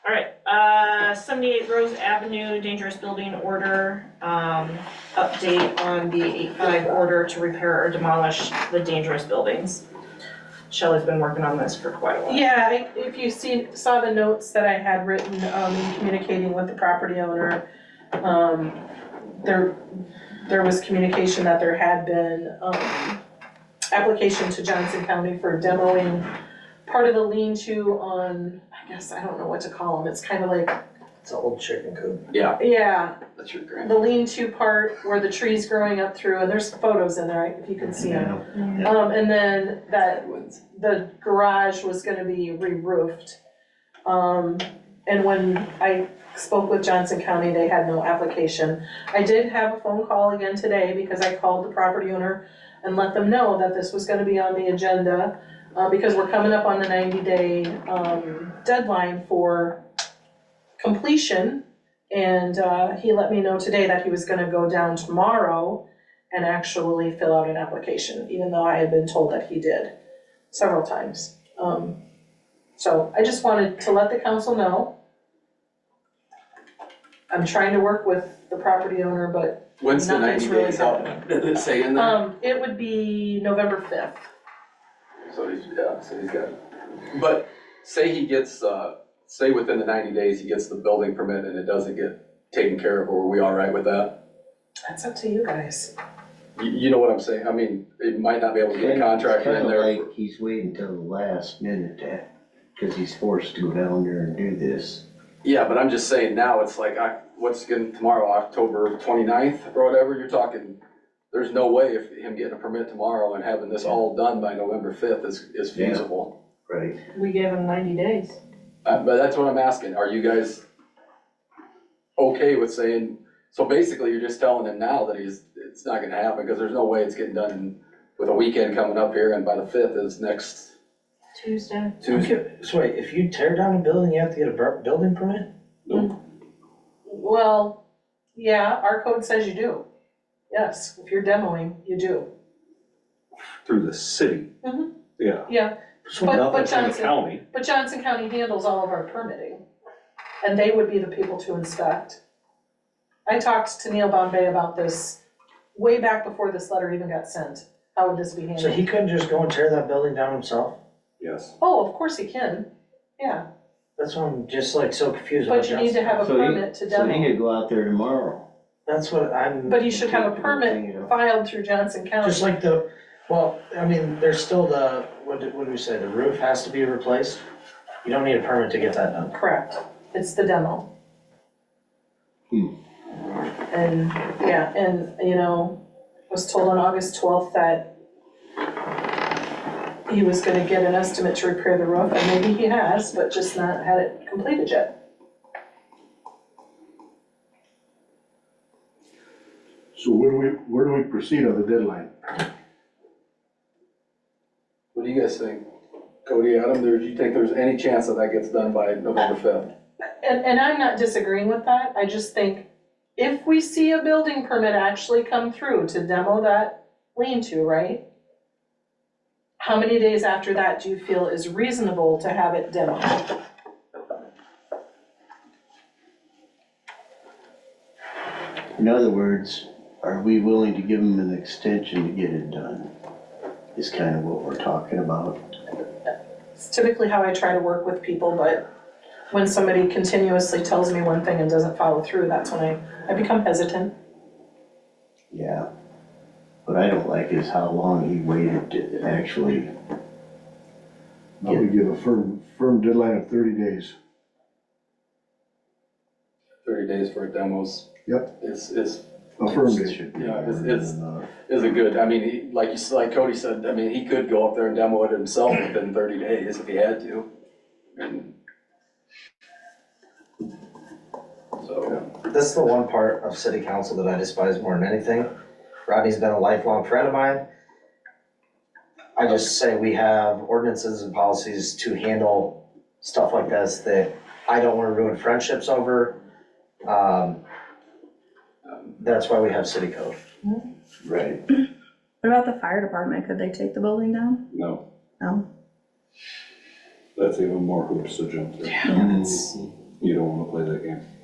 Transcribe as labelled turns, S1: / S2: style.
S1: Uh, seventy-eight Rose Avenue, dangerous building order, um, update on the eight-five order to repair or demolish the dangerous buildings. Shelley's been working on this for quite a while.
S2: Yeah, I- if you see, saw the notes that I had written, um, in communicating with the property owner, um, there, there was communication that there had been, um, application to Johnson County for demoing part of the lean-to on, I guess, I don't know what to call them, it's kind of like,
S3: It's an old chicken coop.
S2: yeah,
S4: That's your grand.
S2: the lean-to part where the tree's growing up through, and there's photos in there, if you can see them. Um, and then that
S4: ones.
S2: the garage was gonna be re-roofed. Um, and when I spoke with Johnson County, they had no application. I did have a phone call again today because I called the property owner and let them know that this was gonna be on the agenda, uh, because we're coming up on the ninety-day, um, deadline for completion. And, uh, he let me know today that he was gonna go down tomorrow and actually fill out an application, even though I had been told that he did several times. Um, so I just wanted to let the council know. I'm trying to work with the property owner, but,
S4: When's the
S2: Nothing's
S4: ninety
S2: really
S4: days out? Did it say in there?
S2: um, it would be November fifth.
S4: So he's, yeah, so he's got, but say he gets, uh, say within the ninety days, he gets the building permit and it doesn't get taken care of, are we all right with that?
S2: That's up to you guys.
S4: You, you know what I'm saying? I mean, it might not be able to get a contractor in there.
S3: It's kinda like he's waiting till the last minute to, cause he's forced to go down there and do this.
S4: Yeah, but I'm just saying now, it's like, I, what's going, tomorrow, October 29th or whatever, you're talking, there's no way if him getting a permit tomorrow and having this all done by November fifth is, is
S3: Yeah.
S4: feasible.
S3: Right.
S5: We gave him ninety days.
S4: Uh, but that's what I'm asking, are you guys okay with saying, so basically you're just telling him now that he's, it's not gonna happen, because there's no way it's getting done with a weekend coming up here, and by the fifth is next
S5: Tuesday.
S4: Tuesday.
S3: So wait, if you tear down a building, you have to get a bur- building permit?
S2: Well, yeah, our code says you do. Yes, if you're demoing, you do.
S6: through the city.
S2: Mhm.
S6: Yeah,
S2: Yeah,
S6: so
S2: But-
S6: nothing
S2: but
S6: from the
S2: Johnson-
S6: county,
S2: but Johnson County handles all of our permitting, and they would be the people to inspect. I talked to Neil Bombay about this way back before this letter even got sent. How would this be handled?
S3: So he couldn't just go and tear that building down himself?
S6: yes.
S2: Oh, of course he can, yeah,
S3: That's why I'm just like so confused about
S2: but you
S3: Johnson.
S2: need to have a
S7: So he-
S2: permit to
S7: So he
S2: demo,
S7: could go out there tomorrow.
S3: That's what I'm.
S2: but you should have a
S3: thinking
S2: permit
S3: of.
S2: filed through Johnson County.
S3: Just like the, well, I mean, there's still the, what did, what did we say, the roof has to be replaced? You don't need a permit to get that done.
S2: Correct, it's the demo.
S7: Hmm.
S2: And, yeah, and, you know, was told on August twelfth that he was gonna get an estimate to repair the roof, and maybe he has, but just not had it completed yet.
S8: So where do we, where do we proceed on the deadline?
S4: What do you guys think? Cody, Adam, there, do you think there's any chance that that gets done by November fifth?
S2: And, and I'm not disagreeing with that, I just think if we see a building permit actually come through to demo that lean-to, right? How many days after that do you feel is reasonable to have it demoed?
S7: In other words, are we willing to give him an extension to get it done? Is kind of what we're talking about.
S2: It's typically how I try to work with people, but when somebody continuously tells me one thing and doesn't follow through, that's when I, I become hesitant.
S7: Yeah. What I don't like is how long he waited to actually,
S8: Now we give a firm, firm deadline of thirty days.
S4: thirty days for demos.
S8: Yep.
S4: Is, is,
S8: A firm
S7: it
S8: date.
S7: should be
S4: Yeah,
S7: more
S4: it's-
S7: than uh,
S4: it's-
S7: enough.
S4: is a good, I mean, he- like you, s- like Cody said, I mean, he could go up there and demo it himself within thirty days if he had to. And- So,
S3: This is the one part of city council that I despise more than anything. Rodney's been a lifelong friend of mine. I just say we have ordinances and policies to handle stuff like this that I don't wanna ruin friendships over. Um, That's why we have city code.
S7: Right.
S9: What about the fire department? Could they take the building down?
S6: No,
S9: No?
S6: that's even more hoops to jump through.
S7: Mhm.
S6: You don't wanna play that game.